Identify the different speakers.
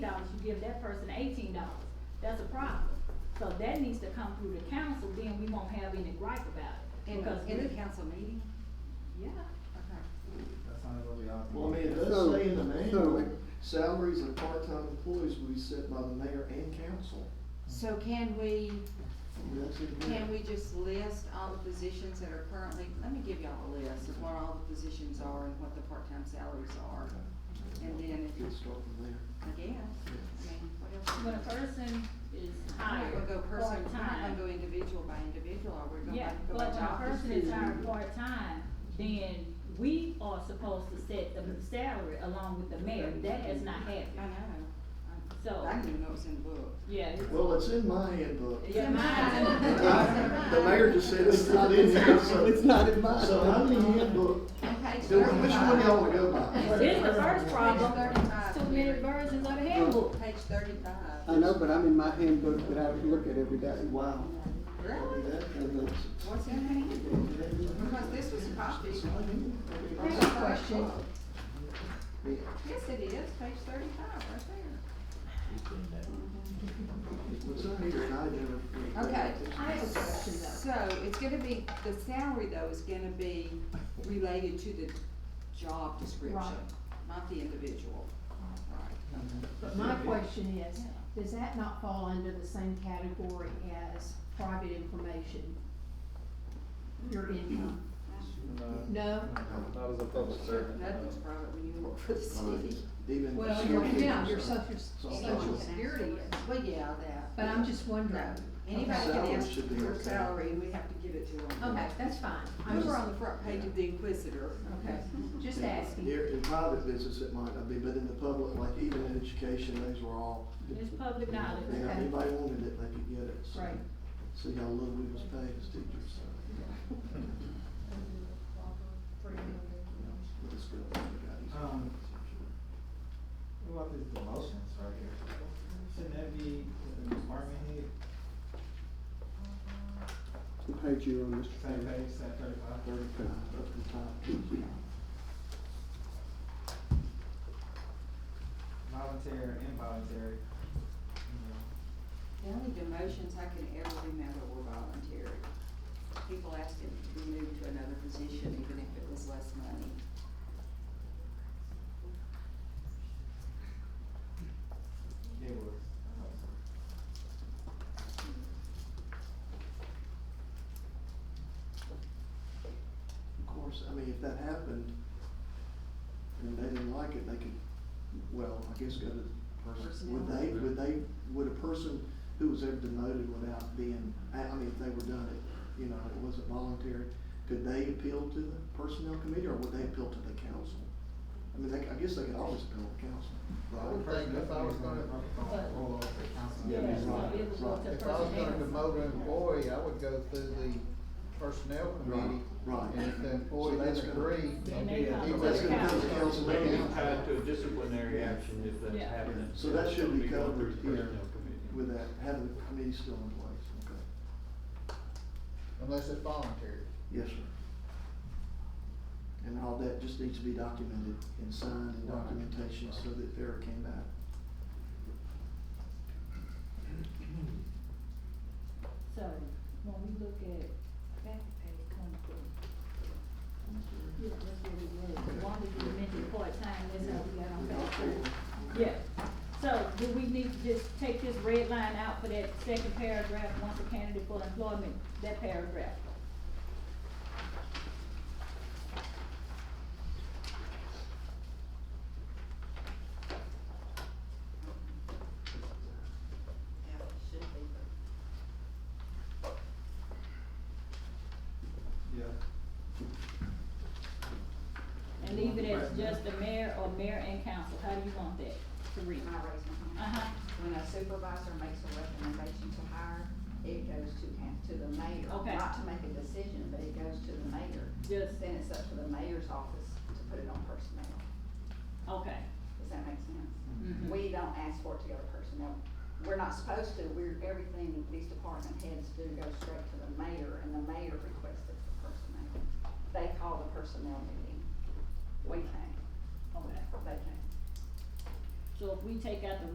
Speaker 1: dollars, you give that person eighteen dollars, that's a problem. So that needs to come through the council, then we won't have any gripe about it,
Speaker 2: In,
Speaker 1: because we,
Speaker 2: in the council meeting?
Speaker 1: yeah.
Speaker 2: Okay.
Speaker 3: That's not what we ought to.
Speaker 4: Well, I mean, it does
Speaker 5: So-
Speaker 4: say in the manual,
Speaker 5: so-
Speaker 4: salaries of part-time employees will be set by the mayor and council.
Speaker 2: So can we,
Speaker 4: I mean, that's in here.
Speaker 2: can we just list all the positions that are currently, let me give y'all a list of what all the positions are and what the part-time salaries are, and then if-
Speaker 4: Good start from there.
Speaker 2: I guess, I mean, what else?
Speaker 1: When a person is hired
Speaker 2: We're not gonna go person, we're not gonna
Speaker 1: part-time,
Speaker 2: go individual by individual, are we gonna
Speaker 1: yeah,
Speaker 2: go by
Speaker 1: but when a
Speaker 2: job
Speaker 1: person
Speaker 2: description?
Speaker 1: is hired part-time, then we are supposed to set the salary along with the mayor, that has not
Speaker 2: I
Speaker 1: happened,
Speaker 2: know,
Speaker 1: so,
Speaker 2: I didn't even know it was in the book.
Speaker 1: yeah. it's-
Speaker 4: Well, it's in my handbook.
Speaker 1: Yeah,
Speaker 4: I-
Speaker 1: mine.
Speaker 4: The mayor just said it's not in here, so.
Speaker 5: It's not in mine.
Speaker 4: So how many handbook,
Speaker 2: On page
Speaker 4: do- which one
Speaker 2: thirty-five.
Speaker 4: y'all wanna go by?
Speaker 1: This is the first problem,
Speaker 2: Page thirty-five.
Speaker 1: too many versions of the handbook.
Speaker 2: Page thirty-five.
Speaker 5: I know, but I'm in my handbook that I look at every day.
Speaker 4: Wow.
Speaker 2: Really?
Speaker 4: That- and that's-
Speaker 2: What's in the handbook? Because this was copied.
Speaker 4: It's not in here.
Speaker 2: I have a question.
Speaker 4: Yeah.
Speaker 2: Yes, it is, page thirty-five, right there.
Speaker 4: It was on here and I never.
Speaker 2: Okay.
Speaker 1: I have a question though,
Speaker 2: So it's gonna be, the salary though is gonna be related to the job description,
Speaker 6: Right.
Speaker 2: not the individual. Right.
Speaker 6: But my question is, does that not fall under the same category as private information? Your income? No?
Speaker 7: Not as a public servant.
Speaker 2: Nothing's
Speaker 7: no.
Speaker 2: private when you work for the city.
Speaker 4: Even.
Speaker 6: Well, your, yeah, your
Speaker 4: uh,
Speaker 6: social, social security is,
Speaker 2: Well, yeah, that.
Speaker 6: but I'm just wondering.
Speaker 2: No, anybody can
Speaker 4: Salary
Speaker 2: ask
Speaker 4: should be
Speaker 2: for
Speaker 4: okay.
Speaker 2: salary and we have to give it to them.
Speaker 6: Okay, that's fine,
Speaker 2: We
Speaker 6: I'm
Speaker 2: were
Speaker 6: just,
Speaker 2: on the front page of the Inquisitor.
Speaker 6: okay, just asking.
Speaker 4: Here, in private business, it might not be, but in the public, like even in education, those were all,
Speaker 1: it's public knowledge.
Speaker 4: you know, if anybody wanted it, they could get it. So-
Speaker 6: Right,
Speaker 4: See how little we was paid as teachers, so. But it's good, we got
Speaker 3: Um, What about these demotions right here? Shouldn't that be the department head,
Speaker 5: What page you on, Mr.
Speaker 3: same
Speaker 5: Taylor?
Speaker 3: page, same thirty-five?
Speaker 4: thirty-five up the top.
Speaker 3: Voluntary, involuntary, you know.
Speaker 2: The only demotions I can ever remember were voluntary. People asked him to be moved to another position even if it was less money.
Speaker 3: It was.
Speaker 4: Of course, I mean, if that happened, and they didn't like it, they could, well, I guess go to the person, would they, would they, would a person who was ever demoted without being, I, I mean, if they were done it, you know, it wasn't voluntary, could they appeal to the personnel committee, or would they appeal to the council? I mean, they, I guess they could always appeal to council.
Speaker 8: I would think if I was gonna,
Speaker 3: Roll over the council.
Speaker 1: Yeah,
Speaker 4: it's
Speaker 1: so
Speaker 4: right,
Speaker 1: it will go to
Speaker 8: if I was gonna
Speaker 1: personnel.
Speaker 8: demote an employee, I would go through the personnel committee.
Speaker 4: Right.
Speaker 8: And if the
Speaker 4: So
Speaker 8: employee
Speaker 4: that's
Speaker 8: doesn't
Speaker 4: gonna-
Speaker 8: agree,
Speaker 1: Then they
Speaker 3: Yeah,
Speaker 1: come
Speaker 4: he
Speaker 1: to
Speaker 4: was
Speaker 1: the
Speaker 4: gonna
Speaker 1: council.
Speaker 4: do it. council
Speaker 7: Maybe
Speaker 4: meeting.
Speaker 7: it's tied to a disciplinary action if that's
Speaker 1: Yeah.
Speaker 7: happening.
Speaker 4: So that should
Speaker 7: It'll
Speaker 4: be
Speaker 7: going
Speaker 4: covered
Speaker 7: through the
Speaker 4: here
Speaker 7: personnel committee.
Speaker 4: With that, having the committee still in place, okay?
Speaker 8: unless it's voluntary.
Speaker 4: Yes, sir. And all that just needs to be documented and signed and
Speaker 3: Right.
Speaker 4: documentation so that Vera came back.
Speaker 1: So, when we look at back page twenty-four, yeah, that's what it was, the one that you mentioned part-time, that's how we got on page three. Yeah, so do we need to just take this red line out for that second paragraph, once a candidate for employment, that paragraph?
Speaker 2: Yeah, it should be, but
Speaker 3: Yeah.
Speaker 1: And leave it as just the mayor or mayor and council, how do you want that to read?
Speaker 9: I raise my hand.
Speaker 1: Uh-huh,
Speaker 9: When a supervisor makes a recommendation to hire, it goes to, coun- to the mayor.
Speaker 1: Okay.
Speaker 9: Not to make a decision, but it goes to the mayor.
Speaker 1: Yes.
Speaker 9: Then it's up to the mayor's office to put it on personnel.
Speaker 1: okay.
Speaker 9: Does that make sense?
Speaker 1: Mhm.
Speaker 9: We don't ask for it to go to personnel. We're not supposed to. We're, everything these department heads do goes straight to the mayor, and the mayor requests it for personnel. They call the personnel meeting. We can't.
Speaker 1: Okay,
Speaker 9: They can't.
Speaker 1: so if we take out the